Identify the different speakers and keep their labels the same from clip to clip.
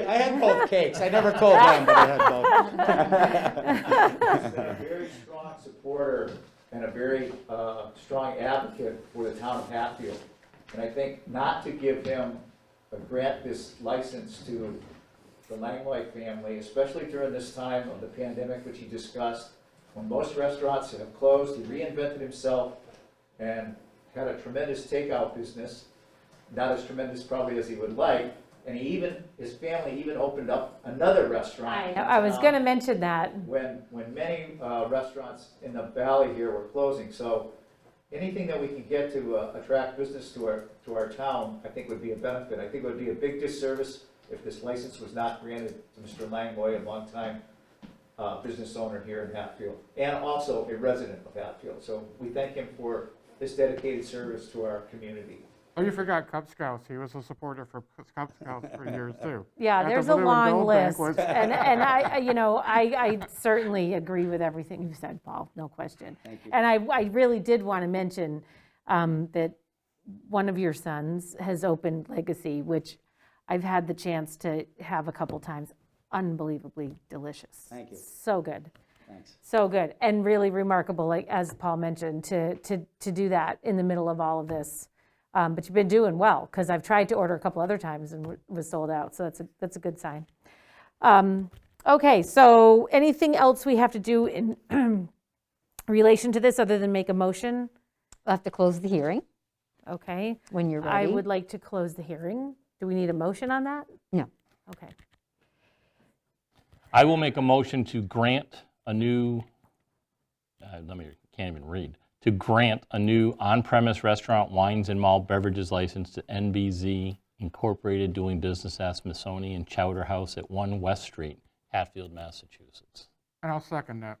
Speaker 1: I had both cakes. I never told them, but I had both.
Speaker 2: been a very strong supporter and a very uh, strong advocate for the town of Hatfield. And I think not to give him, uh, grant this license to the Langley family, especially during this time of the pandemic, which he discussed, when most restaurants have closed, he reinvented himself and had a tremendous takeout business, not as tremendous probably as he would like. And he even, his family even opened up another restaurant. in
Speaker 3: I was
Speaker 2: town
Speaker 3: gonna mention that.
Speaker 2: when, when many uh, restaurants in the valley here were closing. So anything that we can get to uh, attract business to our, to our town, I think would be a benefit. I think it would be a big disservice if this license was not granted to Mr. Langley, a longtime uh, business owner here in Hatfield, and also a resident of Hatfield. So we thank him for his dedicated service to our community.
Speaker 4: Oh, you forgot Cub Scouts. He was a supporter for Cub- Cub Scouts for years, too. At
Speaker 3: Yeah,
Speaker 4: the
Speaker 3: there's a
Speaker 4: Blue and
Speaker 3: long
Speaker 4: Gold
Speaker 3: list.
Speaker 4: banquets.
Speaker 3: And, and I, I- you know, I, I certainly agree with everything you said, Paul, no question.
Speaker 1: Thank you.
Speaker 3: And I, I really did want to mention um, that one of your sons has opened Legacy, which I've had the chance to have a couple times. Unbelievably delicious.
Speaker 1: Thank you.
Speaker 3: So good.
Speaker 1: Thanks.
Speaker 3: So good and really remarkable, like as Paul mentioned, to to to do that in the middle of all of this. Um, but you've been doing well because I've tried to order a couple other times and w- was sold out. So that's a that's a good sign. Um, okay, so anything else we have to do in relation to this other than make a motion?
Speaker 5: We'll have to close the hearing
Speaker 3: Okay,
Speaker 5: when you're
Speaker 3: I
Speaker 5: ready.
Speaker 3: would like to close the hearing. Do we need a motion on that?
Speaker 5: No.
Speaker 3: Okay.
Speaker 6: I will make a motion to grant a new, uh, let me, can't even read, to grant a new on-premise restaurant wines and malt beverages license to NBZ Incorporated doing business as Smithsonian Chowder House at 1 West Street, Hatfield, Massachusetts.
Speaker 4: And I'll second that.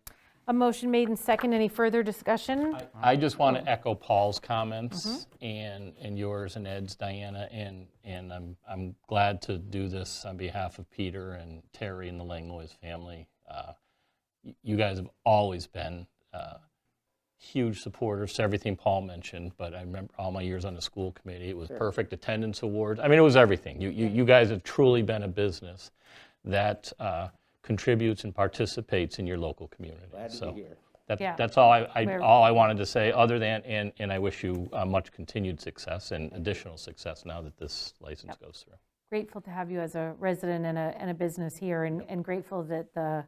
Speaker 3: A motion made and second. Any further discussion?
Speaker 6: I- I just want to echo Paul's comments and, and yours and Ed's, Diana, and, and I'm, I'm glad to do this on behalf of Peter and Terry and the Langlois family. Uh, y- You guys have always been uh, huge supporters to everything Paul mentioned, but I remember all my years on the school committee, it was perfect attendance awards. I mean, it was everything. You, you, you guys have truly been a business that uh, contributes and participates in your local community.
Speaker 1: Glad to
Speaker 6: So-
Speaker 1: be here.
Speaker 6: that,
Speaker 3: Yeah.
Speaker 6: That's all I, I,
Speaker 3: We're-
Speaker 6: all I wanted to say, other than, and, and I wish you uh, much continued success and additional success now that this license goes through.
Speaker 3: grateful to have you as a resident and a, and a business here, and, and grateful that the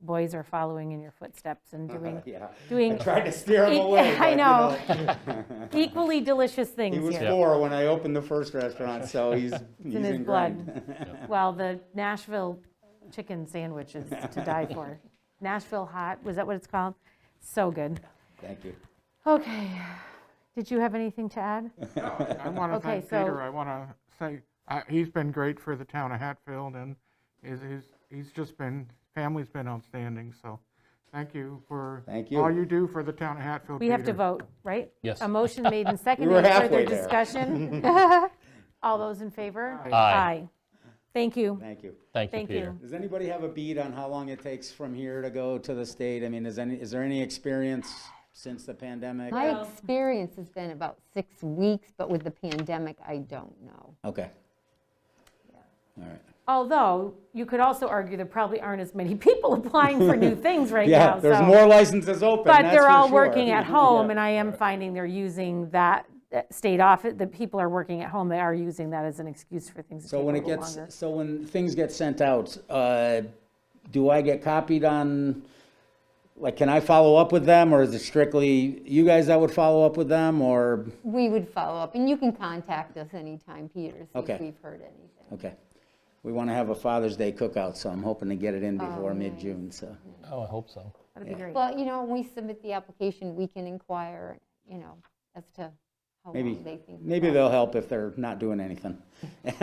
Speaker 3: boys are following in your footsteps and doing
Speaker 1: Yeah. I
Speaker 3: doing
Speaker 1: tried to steer him
Speaker 3: Yeah,
Speaker 1: away.
Speaker 3: I
Speaker 1: but, you
Speaker 3: equally delicious things
Speaker 1: He was
Speaker 3: here.
Speaker 1: four when I opened the first restaurant, so he's, he's
Speaker 3: in his
Speaker 1: ingrained.
Speaker 3: Well, the Nashville chicken sandwich is to die for. Nashville hot, was that what it's called? So good.
Speaker 1: Thank you.
Speaker 3: Okay, did you have anything to add?
Speaker 4: I want to
Speaker 3: Okay,
Speaker 4: thank
Speaker 3: so-
Speaker 4: Peter. I want to say, I- he's been great for the town of Hatfield, and he's, he's- he's just been, family's been outstanding, so thank you for
Speaker 1: Thank
Speaker 4: all
Speaker 1: you.
Speaker 4: you do for the town of Hatfield,
Speaker 3: We have to
Speaker 4: Peter.
Speaker 3: vote, right?
Speaker 6: Yes.
Speaker 3: A motion made and seconded.
Speaker 1: were
Speaker 3: Any
Speaker 1: halfway
Speaker 3: Further
Speaker 1: there.
Speaker 3: discussion? All those in favor?
Speaker 6: Aye.
Speaker 3: Thank you.
Speaker 1: Thank you.
Speaker 6: Thank you,
Speaker 3: Thank
Speaker 6: Peter.
Speaker 3: you.
Speaker 1: Does anybody have a bead on how long it takes from here to go to the state? I mean, is any, is there any experience since the pandemic?
Speaker 5: My experience has been about six weeks, but with the pandemic, I don't know.
Speaker 1: Okay. All right.
Speaker 3: Although, you could also argue there probably aren't as many people applying for new things right now.
Speaker 1: Yeah, there's
Speaker 3: so-
Speaker 1: more licenses open,
Speaker 3: But
Speaker 1: that's for
Speaker 3: they're all
Speaker 1: sure.
Speaker 3: working at home, and I am finding they're using that uh, state office, the people are working at home, they are using that as an excuse for things to
Speaker 1: So
Speaker 3: take a
Speaker 1: when it
Speaker 3: little
Speaker 1: gets,
Speaker 3: longer.
Speaker 1: so when things get sent out, uh, do I get copied on, like, can I follow up with them, or is it strictly you guys that would follow up with them, or,
Speaker 5: We would follow up, and you can contact us anytime, Peter, see
Speaker 1: Okay.
Speaker 5: if we've heard anything.
Speaker 1: okay. We want to have a Father's Day cookout, so I'm hoping to get it in
Speaker 3: Oh,
Speaker 1: before mid-June, so.
Speaker 6: Oh, I hope so.
Speaker 3: That'd be great.
Speaker 5: Well, you know, when we submit the application, we can inquire, you know, as to how
Speaker 1: Maybe,
Speaker 5: long they think.
Speaker 1: maybe they'll help if they're not doing anything.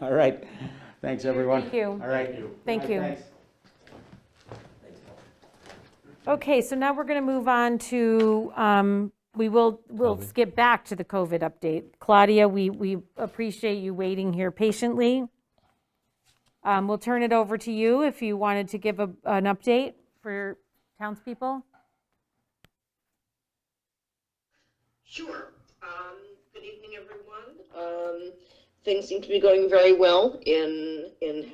Speaker 1: All right, thanks, everyone.
Speaker 3: Thank you.
Speaker 1: All right.
Speaker 3: Thank
Speaker 1: All right,
Speaker 3: you.
Speaker 1: thanks.
Speaker 3: Okay, so now we're going to move on to, um, we will, we'll skip back to the COVID update. Claudia, we, we appreciate you waiting here patiently. Um, We'll turn it over to you if you wanted to give a- an update for townspeople.
Speaker 7: Sure. Um, good evening, everyone. Um, things seem to be going very well in in